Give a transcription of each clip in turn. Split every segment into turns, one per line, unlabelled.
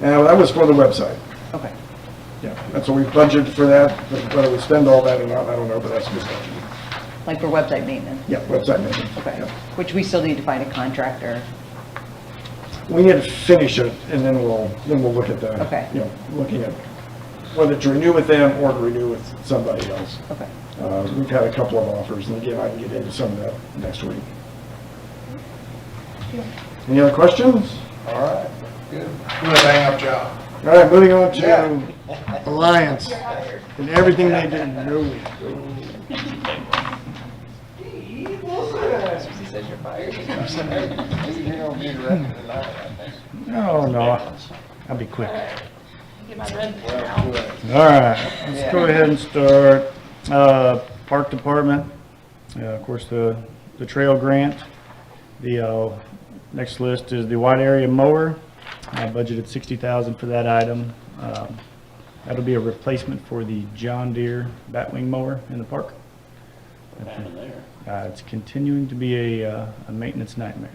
And that was for the website.
Okay.
Yeah, that's what we budgeted for that, whether we spend all that or not, I don't know, but that's just,
Like for website maintenance?
yeah, website maintenance.
Okay.
yeah.
Which we still need to find a contractor.
We need to finish it, and then we'll, then we'll look at the,
Okay.
you know, looking at whether to renew with them or to renew with somebody else.
Okay.
Uh, We've had a couple of offers, and again, I can get into some of that next week. Any other questions?
All right, good. Good hang-up job.
All right, moving on
Yeah.
to Alliance and everything they did. No.
She says you're fired. You're gonna be directed tonight, I think.
No, no, I'll be quick.
Get my red
Well,
pen out.
good.
All right, let's go ahead and start, uh, Park Department, uh, of course, the, the trail grant. The, uh, next list is the wide area mower. I budgeted sixty thousand for that item. Um, That'll be a replacement for the John Deere Batwing mower in the park. Uh, it's continuing to be a, uh, a maintenance nightmare.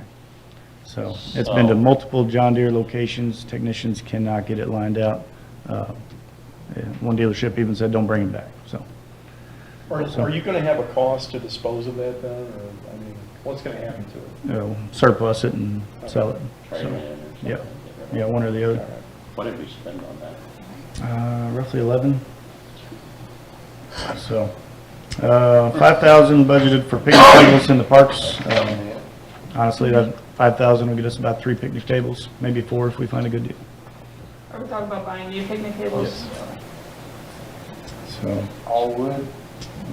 So it's been to multiple John Deere locations. Technicians cannot get it lined out. Uh, yeah, One dealership even said, don't bring him back, so.
Are,
So-
are you gonna have a cost to dispose of that then, or, I mean, what's gonna happen to it?
you know, surplus it and sell it.
Trade
So,
it in
Yeah, yeah, one or the other.
What did we spend on that?
Uh, Roughly 11. So, uh, 5,000 budgeted for picnic tables in the parks. Um, Honestly, that 5,000 will get us about three picnic tables, maybe four if we find a good deal.
Are we talking about buying new picnic tables?
So,
All wood?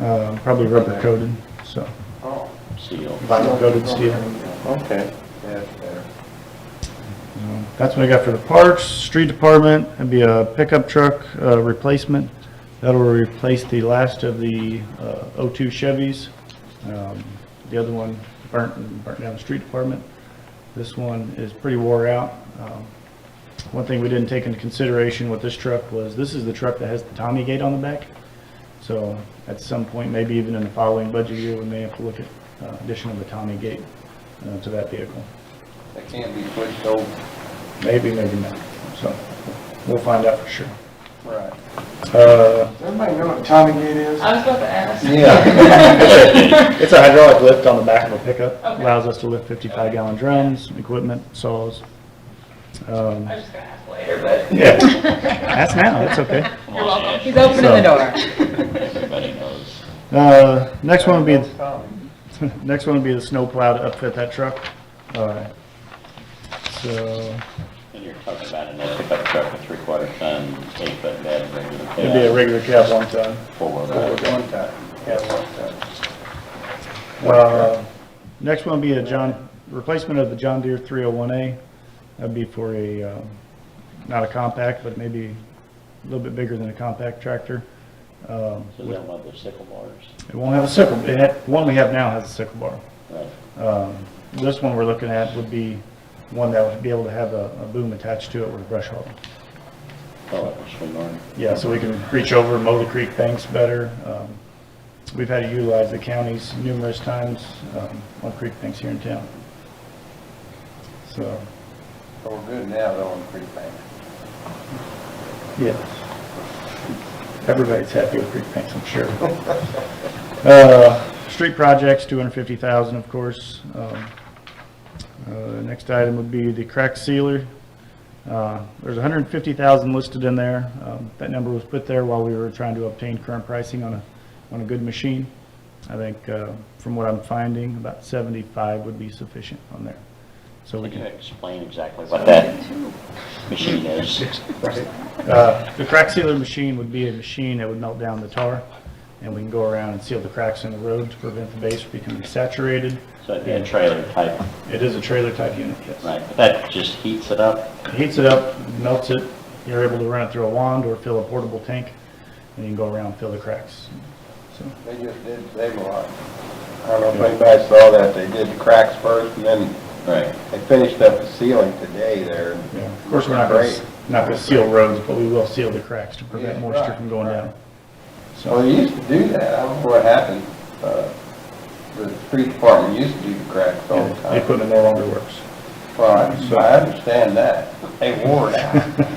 uh, probably rubber coated, so.
Oh.
Seal.
Vinyl coated steel.
Okay. That's better.
That's what I got for the parks, street department, it'd be a pickup truck uh, replacement. That'll replace the last of the uh, O2 Chevys. Um, The other one burnt, and burnt down the street department. This one is pretty wore out. Um, One thing we didn't take into consideration with this truck was, this is the truck that has the Tommy gate on the back. So at some point, maybe even in the following budget year, we may have to look at uh, addition of the Tommy gate uh, to that vehicle.
That can't be pushed over.
Maybe, maybe not. So we'll find out for sure.
Right.
Uh,
Everybody know what Tommy Gate is?
I was about to ask.
Yeah.
It's a hydraulic lift on the back of a pickup.
Okay.
Allows us to lift 55 gallon drums, equipment, saws. Um,
I was just gonna ask later, but
Yeah, That's now, that's okay.
Come
you're
on,
welcome.
Ash,
He's opening the door.
Everybody knows.
Uh, Next one would be,
Tommy.
next one would be the snow plow to upfit that truck. All right. So
And you're talking about another pickup truck with three-quarter ton, eight-foot bed, regular cab.
it'd be a regular cab one ton.
Four-wheel
One
drive.
time, yeah, one time.
Uh, Next one would be a John, replacement of the John Deere 301A. That'd be for a, um, not a compact, but maybe a little bit bigger than a compact tractor. Um,
So they'll love their sickle bars.
It won't have a sickle, it had, one we have now has a sickle bar.
Right.
Um, This one we're looking at would be one that would be able to have a a boom attached to it with a brush hog.
Call it a swing arm.
Yeah, so we can reach over, mow the creek banks better. Um, We've had to utilize the counties numerous times um, on creek banks here in town. So,
So we're Oh, good now, though, on prepayment.
yes. Everybody's happy with creek banks, I'm sure. Uh, Street projects, 250,000, of course. Um, uh, Next item would be the crack sealer. Uh, There's 150,000 listed in there. Um, That number was put there while we were trying to obtain current pricing on a, on a good machine. I think, uh, from what I'm finding, about 75 would be sufficient on there. So we
Can you
can,
explain exactly what that machine is?
uh, the crack sealer machine would be a machine that would melt down the tar, and we can go around and seal the cracks in the road to prevent the base from becoming saturated.
So it'd be a trailer type,
It is a trailer type unit, yes.
right? But that just heats it up?
heats it up, melts it, you're able to run it through a wand or fill a portable tank, and you can go around and fill the cracks. So,
They just did, they were like, I don't know if anybody saw that, they did the cracks first, and then
Right.
they finished up the ceiling today there.
yeah. Of course, we're not going
Great.
to, not going to seal roads, but we will seal the cracks to prevent
Yeah,
moisture
right,
from going
right.
down.
Well,
So,
they used to do that, I don't know what happened, uh, the street department used to do the cracks all the
the
time.
equipment no longer works.
Well, I I understand that, they wore it out.